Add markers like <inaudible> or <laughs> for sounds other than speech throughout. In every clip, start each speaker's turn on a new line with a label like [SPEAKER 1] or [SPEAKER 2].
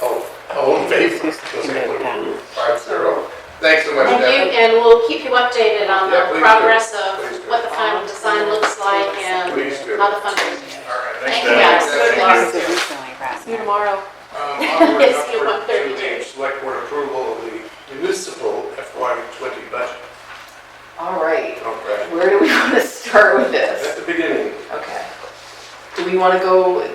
[SPEAKER 1] Oh,
[SPEAKER 2] updated on the
[SPEAKER 1] Yeah, please do.
[SPEAKER 2] progress
[SPEAKER 1] Please
[SPEAKER 2] of
[SPEAKER 1] do.
[SPEAKER 2] what the final design looks like and
[SPEAKER 1] Please do.
[SPEAKER 2] how the funding. Thank you
[SPEAKER 1] Dad.
[SPEAKER 2] guys.
[SPEAKER 1] Thank
[SPEAKER 2] Good luck.
[SPEAKER 3] It's a reselling process.
[SPEAKER 2] See you tomorrow. <laughs>
[SPEAKER 1] Um, onward and
[SPEAKER 2] It's been
[SPEAKER 1] upward
[SPEAKER 2] about 30
[SPEAKER 1] to the
[SPEAKER 2] years.
[SPEAKER 1] Select board approval of the municipal FY twenty budget.
[SPEAKER 4] All right,
[SPEAKER 1] Okay.
[SPEAKER 4] where do we <laughs> want to start with
[SPEAKER 1] At
[SPEAKER 4] this?
[SPEAKER 1] the beginning,
[SPEAKER 4] Okay. Do we want to go,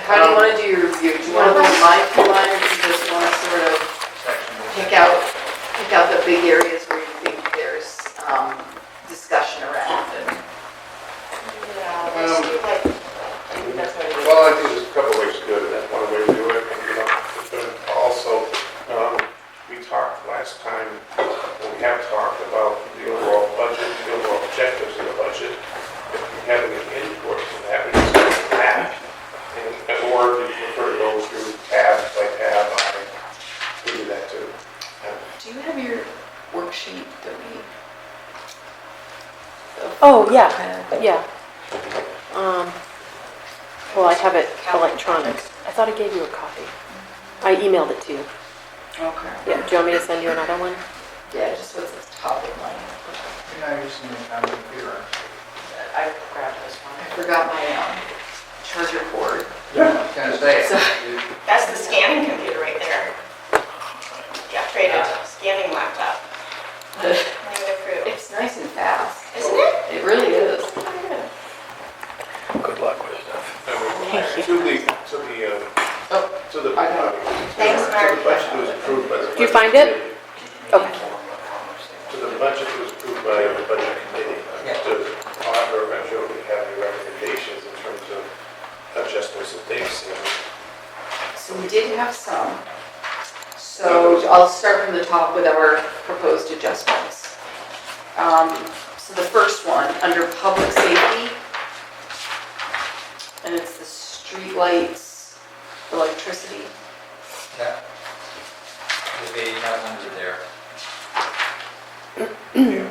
[SPEAKER 4] how do you want to do your review? Do you want to go line for line or do you just want to sort of pick out, pick out the big areas where you think there's um, discussion around? and-
[SPEAKER 2] Yeah,
[SPEAKER 5] Um,
[SPEAKER 2] let's do like- I think that's what it is.
[SPEAKER 1] well, I think there's a couple ways to do it, that's one way to do it, and, you know, but also, um, we talked last time, and we have talked about the overall budget, the overall objectives of the budget, if you have any input from that, we just go back, and, or if you prefer to go through tab by tab, I, we do that too.
[SPEAKER 4] Do you have your worksheet that we?
[SPEAKER 5] Oh, yeah, yeah. Um, Well, I have it electronic. I thought I gave you a copy. I emailed it to you.
[SPEAKER 4] Okay.
[SPEAKER 5] Yeah, do you want me to send you another one?
[SPEAKER 4] Yeah, just what's the top of line.
[SPEAKER 6] You're not using the town computer.
[SPEAKER 4] I grabbed this one. I forgot my um, charger cord.
[SPEAKER 6] I was gonna say,
[SPEAKER 4] So- <laughs>
[SPEAKER 6] you-
[SPEAKER 7] That's the scanning computer right there. The upgraded scanning laptop. Land approved.
[SPEAKER 4] It's nice and fast.
[SPEAKER 7] Isn't it?
[SPEAKER 4] It really is.
[SPEAKER 1] Good luck with stuff. To the, to the, uh, to the.
[SPEAKER 4] I got
[SPEAKER 7] Thanks,
[SPEAKER 1] To the
[SPEAKER 7] Mark.
[SPEAKER 1] budget that was approved by the.
[SPEAKER 5] you
[SPEAKER 1] budget
[SPEAKER 5] find it?
[SPEAKER 1] committee.
[SPEAKER 5] Okay.
[SPEAKER 1] To the budget that was approved by the budget committee.
[SPEAKER 6] Yeah.
[SPEAKER 1] To author, I'm sure we have any recommendations in terms of adjustments that they've seen.
[SPEAKER 4] So we did have some. So I'll start from the top with our proposed adjustments. Um, So the first one, under public safety, and it's the streetlights, electricity.
[SPEAKER 6] yeah. It'd be not under there.
[SPEAKER 5] Mm.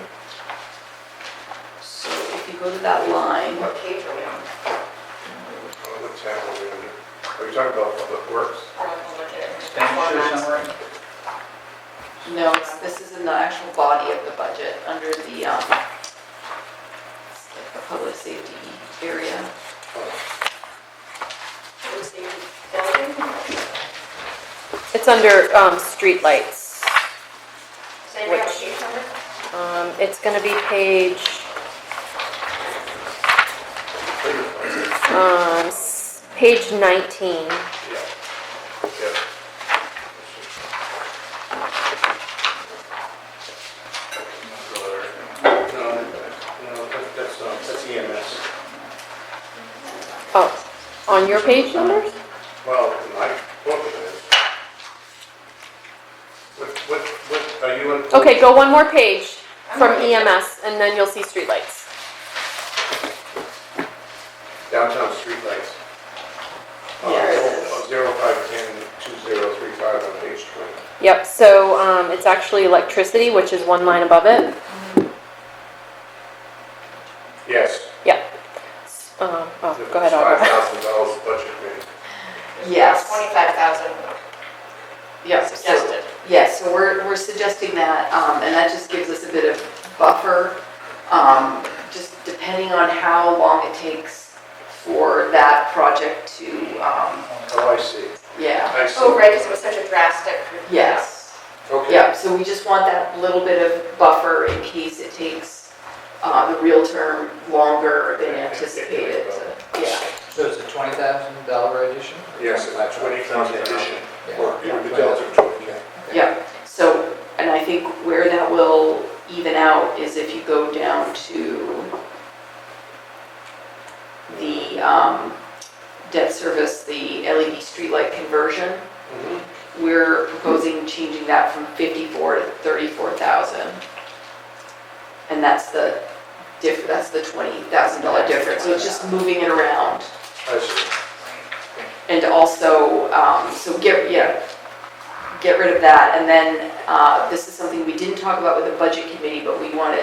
[SPEAKER 4] So if you go to that line,
[SPEAKER 7] What page are we on?
[SPEAKER 1] Uh, What's happening? Are you talking about public works?
[SPEAKER 7] I'll have to look at it.
[SPEAKER 6] Expenditure summary?
[SPEAKER 4] no, it's- this is in the actual body of the budget, under the, um, it's like the public safety area.
[SPEAKER 1] Oh,
[SPEAKER 7] It was the building.
[SPEAKER 5] It's under um, streetlights.
[SPEAKER 7] Does anybody have a sheet number?
[SPEAKER 5] Um, It's going to be page um, s- page 19.
[SPEAKER 1] Yeah. Yeah. No, no, that- that's, um, that's EMS.
[SPEAKER 5] Oh, on your page numbers?
[SPEAKER 1] Well, my book is. What, what, what, are you in?
[SPEAKER 5] Okay, go one more page from EMS, and then you'll see streetlights.
[SPEAKER 1] Downtown streetlights. Uh, oh,
[SPEAKER 4] There it is.
[SPEAKER 1] Zero five ten two zero three five on page twenty.
[SPEAKER 5] Yep, so um, it's actually electricity, which is one line above it.
[SPEAKER 1] Yes.
[SPEAKER 5] Um, Oh, go ahead, Audra.
[SPEAKER 1] Five thousand dollars budget committee.
[SPEAKER 4] Yes.
[SPEAKER 7] Twenty-five thousand
[SPEAKER 4] Yes,
[SPEAKER 7] suggested.
[SPEAKER 4] Yes, so we're, we're suggesting that, um, and that just gives us a bit of buffer, um, just depending on how long it takes for that project to, um,
[SPEAKER 1] Oh, I see.
[SPEAKER 4] yeah,
[SPEAKER 1] I see.
[SPEAKER 7] Oh, right, because it was such a drastic.
[SPEAKER 4] yes.
[SPEAKER 1] Okay.
[SPEAKER 4] Yeah, so we just want that little bit of buffer in case it takes, uh, the real term longer than anticipated, to- yeah.
[SPEAKER 6] So it's a twenty thousand dollar addition?
[SPEAKER 1] Yes, it's twenty thousand addition. Or
[SPEAKER 6] Yeah.
[SPEAKER 1] the delta of twenty.
[SPEAKER 4] Yeah, so, and I think where that will even out is if you go down to the um, debt service, the LED streetlight conversion,
[SPEAKER 1] Mhm.
[SPEAKER 6] Mm-hmm.
[SPEAKER 4] we're proposing changing that from 54 to 34,000. And that's the diff, that's the $20,000 difference, so it's just moving it around.
[SPEAKER 1] I see.
[SPEAKER 4] And also, um, so get, yeah, get rid of that. And then, uh, this is something we didn't talk about with the budget committee, but we want to